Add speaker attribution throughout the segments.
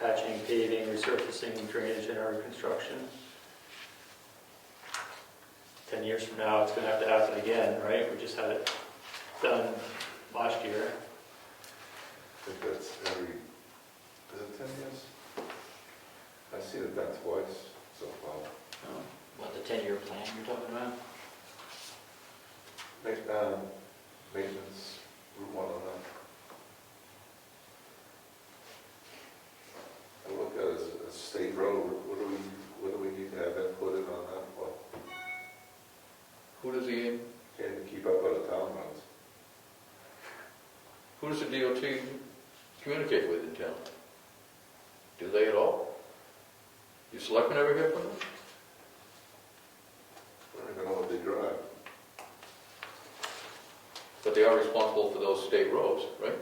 Speaker 1: patching, paving, resurfacing, drainage, and or reconstruction. 10 years from now, it's going to have to happen again, right? We just had it done last year.
Speaker 2: I think that's every, is it ten years? I see it done twice so far.
Speaker 1: Oh, What, the 10-year plan you're talking about?
Speaker 2: Ma- um, Maintenance, Route one oh nine. I look at it as a state road, what do we, what do we need to have that put in on that for?
Speaker 3: Who does the,
Speaker 2: Can't even keep up with the town roads.
Speaker 3: who does the DOT communicate with in town? Do they at all? You selectmen ever hear from them?
Speaker 2: I don't even know what they drive.
Speaker 3: But they are responsible for those state roads, right?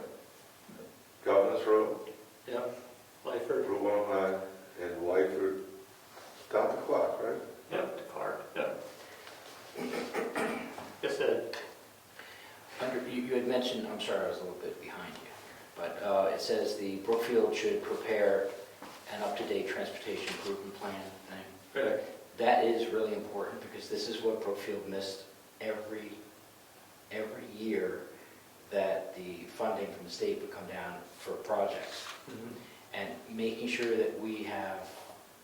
Speaker 2: Governor's Road,
Speaker 1: Yep, Lyford.
Speaker 2: Route one oh nine, and Wyford, down the clock, right?
Speaker 1: Yep, Clark, yep. Like I said,
Speaker 4: Under, you, you had mentioned, I'm sorry, I was a little bit behind you, but uh, it says the Brookfield should prepare an up-to-date transportation improvement plan thing.
Speaker 1: correct.
Speaker 4: That is really important because this is what Brookfield missed every, every year that the funding from the state would come down for projects.
Speaker 1: Mhm.
Speaker 4: And making sure that we have,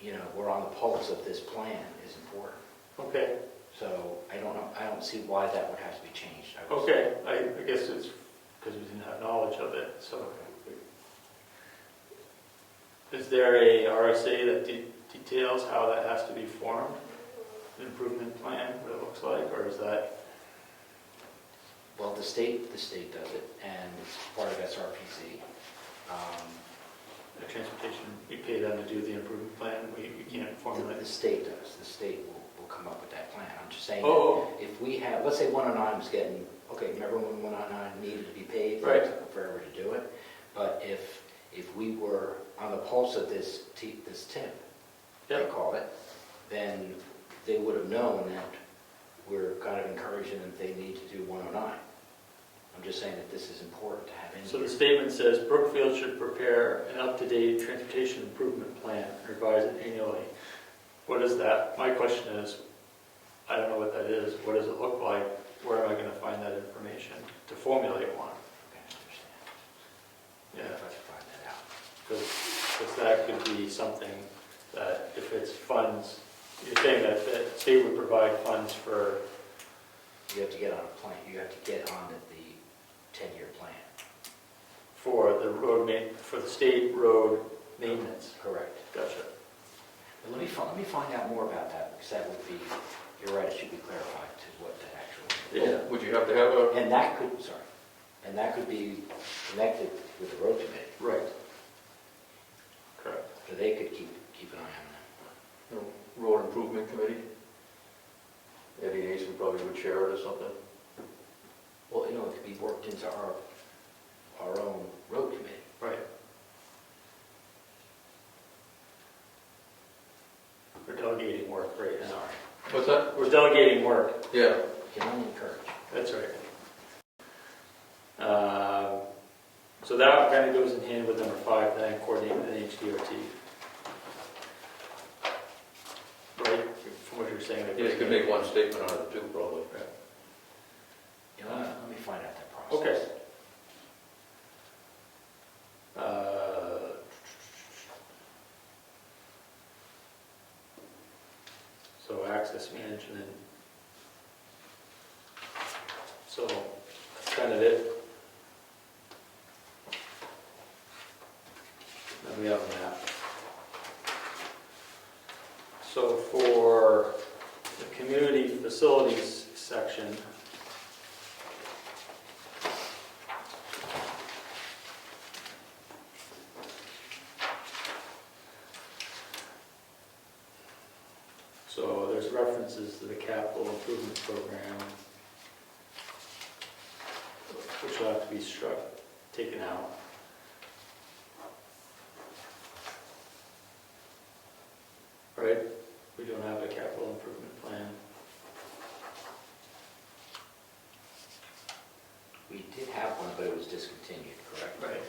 Speaker 4: you know, we're on the pulse of this plan is important.
Speaker 1: Okay,
Speaker 4: So I don't know, I don't see why that would have to be changed. I was-
Speaker 1: okay, I I guess it's because we didn't have knowledge of it, so. Is there a RSA that de- details how that has to be formed? An Improvement plan, what it looks like, or is that,
Speaker 4: Well, the state, the state does it, and it's part of SRPC. Um,
Speaker 1: the transportation, we pay them to do the improvement plan, we we can't
Speaker 4: The the
Speaker 1: formulate?
Speaker 4: state does, the state will, will come up with that plan. I'm just saying, that
Speaker 1: Oh,
Speaker 4: if we have, let's say 109 is getting, okay, remember when 109 needed to be paved?
Speaker 1: Right.
Speaker 4: It took Forever to do it, but if, if we were on the pulse of this, T- this tip, they
Speaker 1: Yep.
Speaker 4: call it, then they would have known that we're kind of encouraging them they need to do 109. I'm just saying that this is important to have in
Speaker 1: oh.
Speaker 4: here.
Speaker 1: so the statement says Brookfield should prepare an up-to-date transportation improvement plan, and revise it annually. What is that? My question is, I don't know what that is, what does it look like? Where am I gonna find that information to formulate one?
Speaker 4: Okay, I understand.
Speaker 1: Yeah.
Speaker 4: If I could find that out.
Speaker 1: Because that could be something that if it's funds, you're saying that the state would provide funds for,
Speaker 4: You have to get on a plan, you have to get on the ten-year plan.
Speaker 1: for the road ma, for the state road maintenance.
Speaker 4: Correct.
Speaker 1: Gotcha.
Speaker 4: But let me, fi- let me find out more about that, because that would be, you're right, it should be clarified to what that actually.
Speaker 1: Yeah.
Speaker 3: Would you have to have a,
Speaker 4: And that could, sorry, and that could be connected with the road committee,
Speaker 1: Right. Correct.
Speaker 4: so they could keep, keep an eye on that.
Speaker 3: a road improvement committee? Eddie and Eason probably would chair it or something.
Speaker 4: Well, you know, it could be worked into our, our own road committee.
Speaker 1: Right. We're delegating work right now.
Speaker 4: Sorry,
Speaker 3: What's that?
Speaker 1: We're delegating work.
Speaker 3: Yeah,
Speaker 4: can only encourage.
Speaker 1: That's right. Uh, So that kind of goes in hand with number five, then coordinate with NHDOT. Right, from what you're saying.
Speaker 3: you just could make one statement out of two, probably.
Speaker 4: You know, let me- let me find out that process.
Speaker 1: Okay. Uh, So access management. So that's kind of it. Then we have a map. So for the community facilities section, So there's references to the capital improvement program, which will have to be struck, taken out. Right? We don't have a capital improvement plan.
Speaker 4: We did have one, but it was discontinued, correct?
Speaker 1: Right.